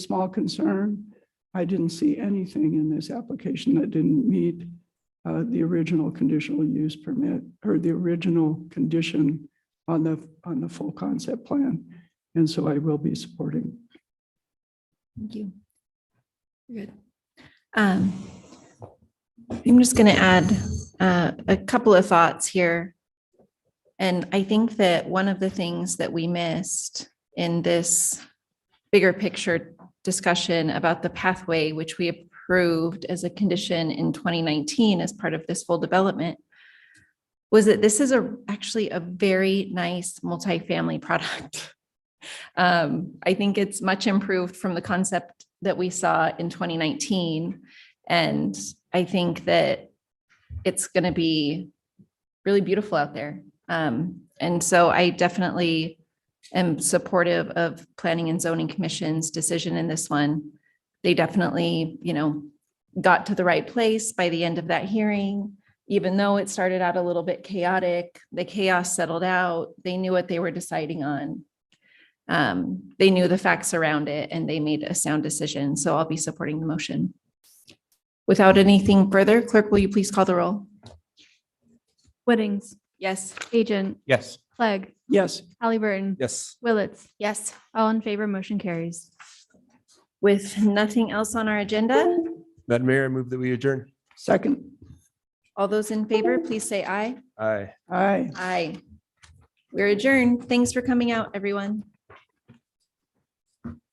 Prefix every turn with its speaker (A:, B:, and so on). A: small concern. I didn't see anything in this application that didn't meet uh, the original conditional use permit or the original condition on the, on the full concept plan. And so I will be supporting.
B: Thank you. Good. Um, I'm just going to add uh, a couple of thoughts here. And I think that one of the things that we missed in this bigger picture discussion about the pathway, which we approved as a condition in 2019 as part of this full development, was that this is a, actually a very nice multifamily product. Um, I think it's much improved from the concept that we saw in 2019. And I think that it's going to be really beautiful out there. Um, and so I definitely am supportive of Planning and Zoning Commission's decision in this one. They definitely, you know, got to the right place by the end of that hearing. Even though it started out a little bit chaotic, the chaos settled out. They knew what they were deciding on um, they knew the facts around it and they made a sound decision. So I'll be supporting the motion. Without anything further, clerk, will you please call the roll?
C: Weddings,
B: Yes.
C: Agent,
D: Yes.
C: Clegg,
A: Yes,
C: Halliburton.
D: Yes.
C: Willetts,
B: Yes.
C: all in favor, motion carries.
B: With nothing else on our agenda,
D: Madam Mayor, I move that we adjourn.
A: second,
B: all those in favor, please say aye.
D: Aye.
A: aye.
B: Aye. We're adjourned. Thanks for coming out, everyone.